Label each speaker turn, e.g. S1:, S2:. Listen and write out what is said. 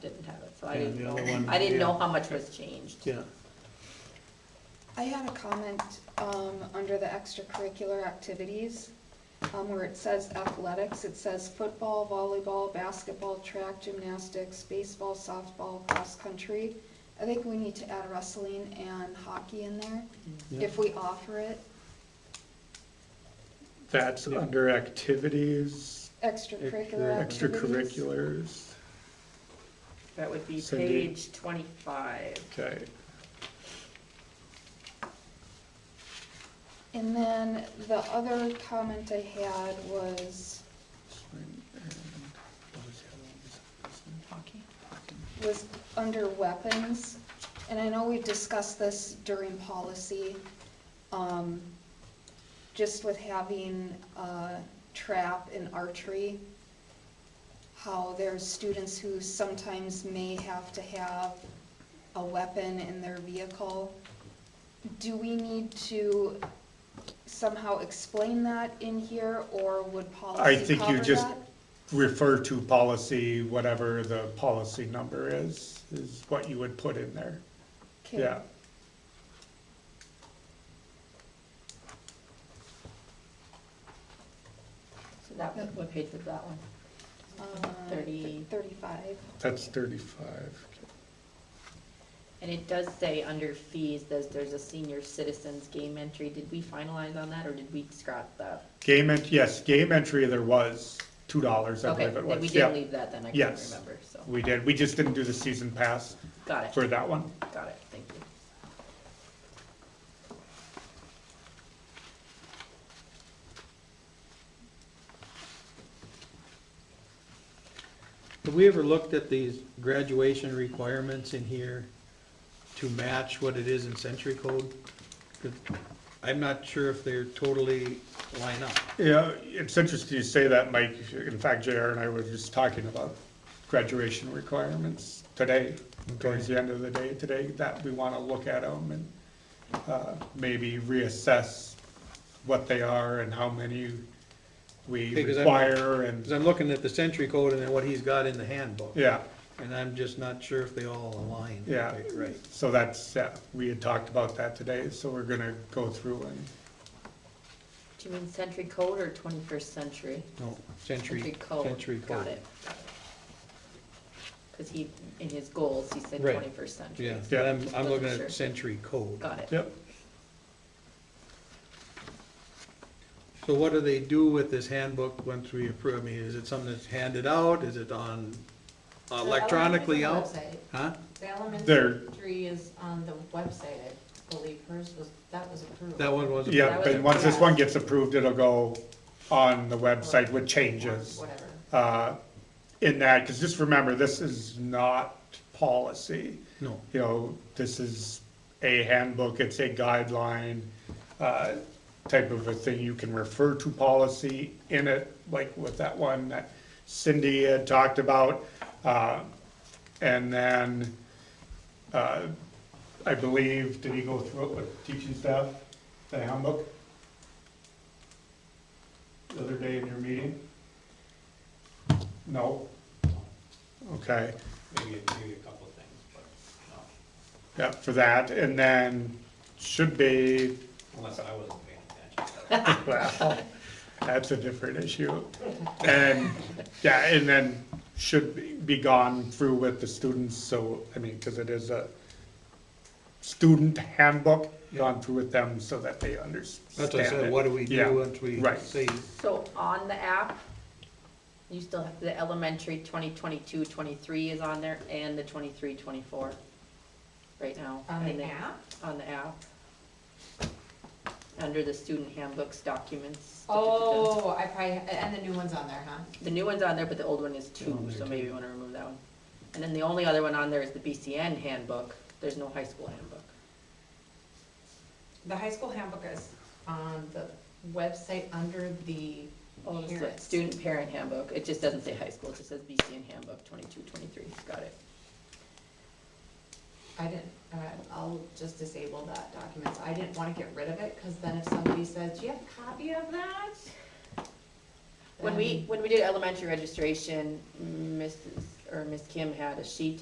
S1: didn't have it, so I
S2: Yeah,
S1: didn't
S2: the
S1: know,
S2: other one,
S1: I didn't know
S2: yeah.
S1: how much was changed.
S2: Yeah,
S3: I had a comment um, under the extracurricular activities, um, where it says athletics, it says football, volleyball, basketball, track, gymnastics, baseball, softball, cross-country. I think we need to add wrestling and hockey in there,
S2: yeah,
S3: if we offer it,
S4: That's
S2: Yeah.
S4: under activities,
S3: extracurricular activities.
S4: extracurriculars,
S1: That would be
S4: Cindy.
S1: page twenty-five.
S4: okay.
S3: And then the other comment I had was,
S1: Hockey.
S3: was under weapons, and I know we've discussed this during policy, um, just with having, uh, trap and archery, how there's students who sometimes may have to have a weapon in their vehicle. Do we need to somehow explain that in here, or would
S4: I
S3: policy
S4: think
S3: cover
S4: you just
S3: that?
S4: refer to policy, whatever the policy number is, is what you would put in there,
S3: Okay.
S4: yeah.
S1: So that, one- what page was that one?
S3: Uh,
S1: Thirty.
S3: Thirty-five.
S4: That's thirty-five.
S1: And it does say under fees, there's, there's a senior citizens game entry. Did we finalize on that or did we scrap that?
S4: Game, en- yes, game entry, there was two dollars, I
S1: Okay,
S4: believe it
S1: then we
S4: was,
S1: did
S4: yeah.
S1: leave that then, I couldn't
S4: Yes.
S1: remember, so,
S4: We did, we just didn't do the season pass
S1: got it,
S4: for that one.
S1: got it, thank you.
S2: have we ever looked at these graduation requirements in here to match what it is in century code? 'Cause I'm not sure if they're totally line up.
S4: Yeah, it's interesting you say that, Mike. In fact, JR and I were just talking about graduation requirements today, towards the end of the day today, that we want to look at them and uh, maybe reassess what they are and how many we
S2: Okay, 'cause I'm-
S4: require
S2: Cause
S4: and,
S2: I'm looking at the century code and then what he's got in the handbook,
S4: yeah,
S2: and I'm just not sure if they all align.
S4: Yeah.
S2: Right.
S4: so that's, yeah, we had talked about that today, so we're gonna go through and,
S1: Do you mean century code or twenty-first century?
S2: No, century,
S1: code.
S2: century
S1: Got
S2: code.
S1: it. got it. Cause he, in his goals, he said
S2: Right.
S1: twenty-first century.
S2: Yeah, but I'm, I'm
S1: Wasn't
S2: looking
S1: sure.
S2: at century code.
S1: Got it.
S4: yep.
S2: So what do they do with this handbook once we approve? I mean, is it something that's handed out? Is it on
S1: Uh,
S2: electronically out? Huh?
S5: The
S4: There.
S5: elementary is on the website, I believe hers was, that was approved.
S2: That one was.
S4: Yep,
S1: was
S4: and once this
S5: approved.
S4: one gets approved, it'll go on the website with changes.
S5: Whatever.
S4: uh, in that, because just remember, this is not policy.
S2: No,
S4: You know, this is a handbook, it's a guideline, uh, type of a thing. You can refer to policy in it, like with that one that Cindy had talked about. Uh, And then, uh, I believe, did he go through it with teaching staff, the handbook? The other day in your meeting? No? Okay.
S6: maybe, maybe a couple of things, but no,
S4: Yeah, for that, and then should be,
S6: unless I wasn't paying attention.
S4: well, that's a different issue. And, yeah, and then should be- be gone through with the students, so, I mean, because it is a student handbook, gone through with them so that they understand
S2: that's what I said,
S4: it.
S2: what do we
S4: Yeah,
S2: do once we
S4: right.
S2: say,
S1: So on the app, you still have the elementary 2022, 23 is on there and the 23, 24 right now.
S5: On
S1: And
S5: the
S1: then-
S5: app?
S1: On the app. Under the student handbooks, documents. da, da, da, da.
S5: Oh, I probably, and the new one's on there, huh?
S1: The new one's on there, but the old one is
S2: Oh,
S1: two,
S2: there
S1: so
S2: too.
S1: maybe you wanna remove that one. And then the only other one on there is the BCN handbook. There's no high school handbook.
S5: The high school handbook is on the website under the
S1: Oh, it's the
S5: parents.
S1: student parent handbook. It just doesn't say high school, it just says BCN handbook 22, 23. Got it.
S5: I didn't, uh, I'll just disable that document. I didn't wanna get rid of it, cause then if somebody says, do you have a copy of that?
S1: When we,
S5: Then-
S1: when we did elementary registration, Mrs. or Miss Kim had a sheet